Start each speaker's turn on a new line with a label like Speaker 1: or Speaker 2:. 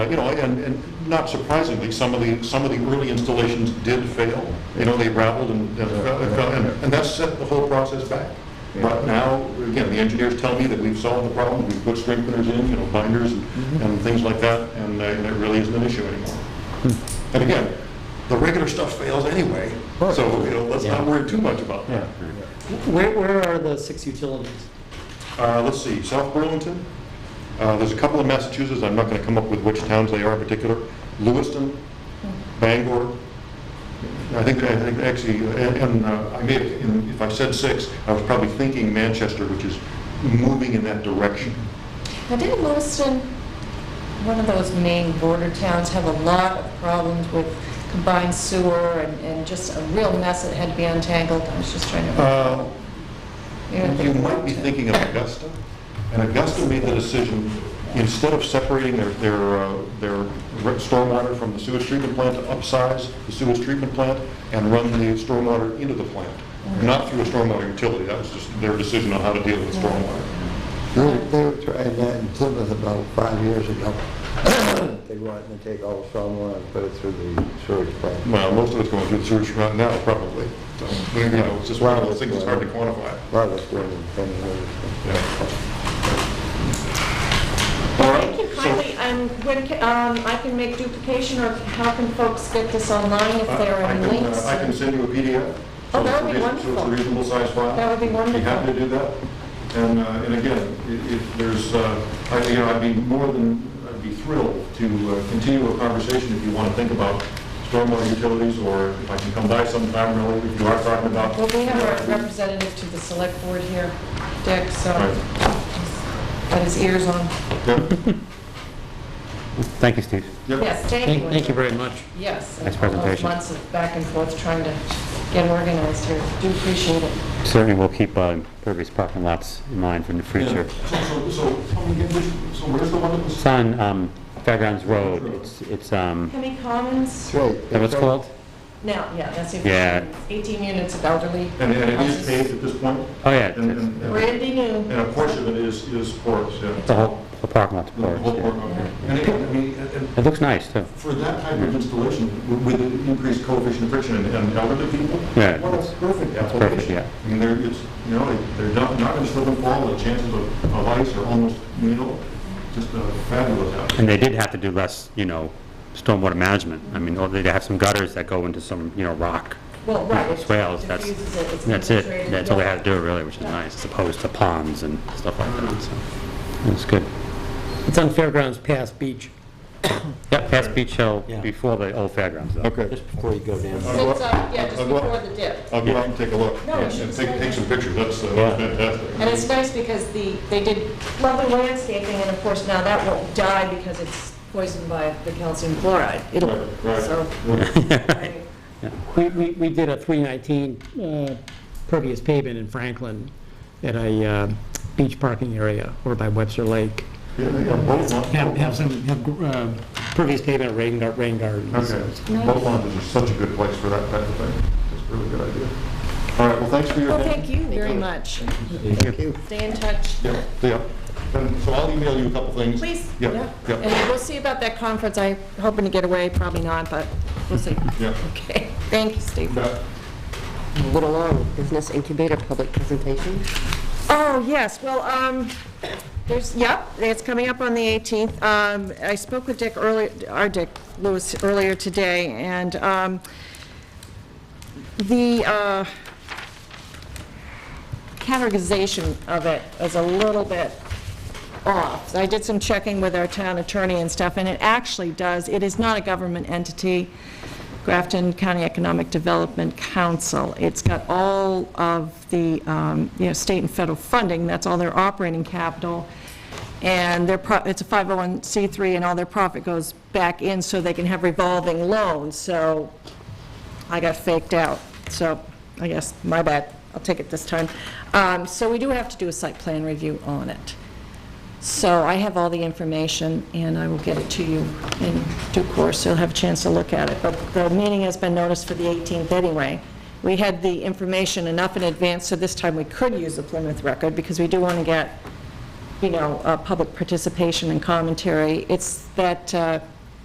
Speaker 1: Uh, You know, and, and not surprisingly, some of the, some of the early installations did fail. You know, they rattled and, and fell- and fell, and and that set the whole process back. But now, again, the engineers tell me that we've solved the problem, we've put strengtheners in, you know, binders and and things like that, and uh, and it really isn't an issue anymore. And again, the regular stuff fails anyway, so, you know, let's not worry too much about that.
Speaker 2: Where, where are the six utilities?
Speaker 1: Uh, let's see, South Burlington, uh, there's a couple in Massachusetts, I'm not gonna come up with which towns they are in particular, Lewiston, Bangor, I think, I think actually, and, and uh, I may, have- and if I said six, I was probably thinking Manchester, which is moving in that direction.
Speaker 3: Now, didn't Lewiston, one of those main border towns, have a lot of problems with combined sewer and, and just a real mess that had to be untangled? I was just trying to.
Speaker 1: Uh,
Speaker 3: you know,
Speaker 1: You might be thinking of Augusta, and Augusta made the decision, instead of separating their, their, uh, their re- stormwater from the sewage treatment plant, to upsize the sewage treatment plant and run the stormwater into the plant, not through a stormwater utility, that was just their decision on how to deal with stormwater.
Speaker 4: They were- they were trying that in Plymouth about five years ago. They wanted to take all the stormwater and put it through the sewage plant.
Speaker 1: Well, most of it's going through the sewage plant now, probably, so, you know, it's just one of those things, it's hard to quantify.
Speaker 4: A lot of it's going in front of the-
Speaker 1: All right,
Speaker 3: Thank you
Speaker 1: so-
Speaker 3: kindly, um, when, ca- um, I can make duplication, or how can folks get this online if there are
Speaker 1: I
Speaker 3: any
Speaker 1: can, uh,
Speaker 3: links?
Speaker 1: I can send you a PDF.
Speaker 3: Oh,
Speaker 1: so
Speaker 3: that
Speaker 1: it's a reason-
Speaker 3: would be
Speaker 1: So it's a
Speaker 3: wonderful.
Speaker 1: reasonable size file.
Speaker 3: That would be
Speaker 1: Be happy to do that. And, uh, and again, i- if there's, uh, I, you know, I'd be more than, I'd be thrilled to uh, continue a conversation if you want to think about stormwater utilities, or if I can come by sometime, really, if you are talking about.
Speaker 3: Well, we have a representative to the select board here, Dick, so,
Speaker 1: Right.
Speaker 3: got his ears on.
Speaker 1: Yeah,
Speaker 5: Thank you, Steve.
Speaker 1: yeah.
Speaker 3: Yes, thank
Speaker 2: Thank
Speaker 3: you.
Speaker 2: thank you very much.
Speaker 3: Yes. and
Speaker 5: Nice
Speaker 3: all those
Speaker 5: presentation.
Speaker 3: Months of back and forth trying to get organized here. Do appreciate it.
Speaker 5: Certainly, we'll keep uh, Purvis parking lots in mind for the future.
Speaker 1: So, so, so, tell me again, which- so where's the one that was?
Speaker 5: It's on um, Fairgrounds Road. It's, it's, um,
Speaker 3: Hemmy Commons?
Speaker 4: That's right.
Speaker 5: is that what it's called?
Speaker 3: Now, yeah, that's it.
Speaker 5: Yeah.
Speaker 3: 18 units of elderly.
Speaker 1: And, and it is paved at this point?
Speaker 5: Oh, yeah.
Speaker 1: And,
Speaker 5: It's
Speaker 1: and, and-
Speaker 3: Randy knew.
Speaker 1: and a portion of it is, is porous, yeah.
Speaker 5: the whole, the parking lot's
Speaker 1: The whole
Speaker 5: porous,
Speaker 1: park,
Speaker 5: yeah.
Speaker 1: okay. And again, I mean, and- and
Speaker 5: It looks nice, too.
Speaker 1: for that type of installation, w- with the increased coefficient of friction and- and elderly people,
Speaker 5: Yeah.
Speaker 1: well, that's perfect
Speaker 5: perfect,
Speaker 1: application.
Speaker 5: yeah.
Speaker 1: I mean, they're, it's, you know, it- they're not, not going to slip and fall, the chances of of ice are almost nil, just uh, fabulous out there.
Speaker 5: And they did have to do less, you know, stormwater management. I mean, or they have some gutters that go into some, you know, rock
Speaker 3: Well, right. it
Speaker 5: swales. That's,
Speaker 3: diffuses it, it's
Speaker 5: that's it.
Speaker 3: infiltrated,
Speaker 5: That's all they
Speaker 3: yeah.
Speaker 5: had to do, really, which is nice, as opposed to ponds and stuff like that, so. That's good.
Speaker 2: It's on Fairgrounds Pass Beach.
Speaker 5: Yeah, past Beach Hill,
Speaker 6: Yeah.
Speaker 5: before the old fairgrounds, though.
Speaker 1: Okay.
Speaker 6: Just before you go down.
Speaker 1: I'll go
Speaker 3: It's, uh,
Speaker 1: up-
Speaker 3: yeah, just
Speaker 1: I'll go up-
Speaker 3: before the dip.
Speaker 1: I'll go out and take a look
Speaker 3: No, you should
Speaker 1: and take,
Speaker 3: stay
Speaker 1: take some pictures, that's uh,
Speaker 5: Yeah.
Speaker 1: fantastic.
Speaker 3: And it's nice because the, they did lovely landscaping, and of course, now that won't die because it's poisoned by the calcium chloride. It'll,
Speaker 1: Right, right.
Speaker 3: so. right.
Speaker 2: We, we, we did a 319 uh, pervious pavement in Franklin at a uh, beach parking area over by Webster Lake.
Speaker 1: Yeah, yeah, both lawns-
Speaker 2: Have, have some, have uh, pervious pavement at rain gar- rain gardens.
Speaker 1: Okay, both lawns are such a good place for that type of thing, it's a really good idea. All right, well, thanks for your
Speaker 3: Well,
Speaker 1: attention.
Speaker 3: thank you very much.
Speaker 4: Thank you.
Speaker 3: Stay in touch.
Speaker 1: Yeah, yeah. And so I'll email you a couple things.
Speaker 3: Please.
Speaker 1: Yeah, yeah,
Speaker 3: And we'll see about that conference. I'm hoping to get away, probably not, but we'll see.
Speaker 1: yeah.
Speaker 3: Okay, thank you, Steve.
Speaker 1: Yeah.
Speaker 7: Little Long Business Incubator Public Presentation.
Speaker 3: Oh, yes, well, um, there's, yep, it's coming up on the 18th. Um, I spoke with Dick earlier, our Dick Lewis earlier today, and, um, the, uh, categorization of it is a little bit off. I did some checking with our town attorney and stuff, and it actually does, it is not a government entity, Grafton County Economic Development Council. It's got all of the, um, you know, state and federal funding, that's all their operating capital, and their, pro- it's a 501c3, and all their profit goes back in so they can have revolving loans, so I got faked out, so I guess, my bad, I'll take it this time. Um, So we do have to do a site plan review on it. So I have all the information, and I will get it to you in due course, so you'll have a chance to look at it. But the meeting has been noticed for the 18th anyway. We had the information enough in advance, so this time we could use the Plymouth record, because we do want to get you know, uh, public participation and commentary. It's that uh,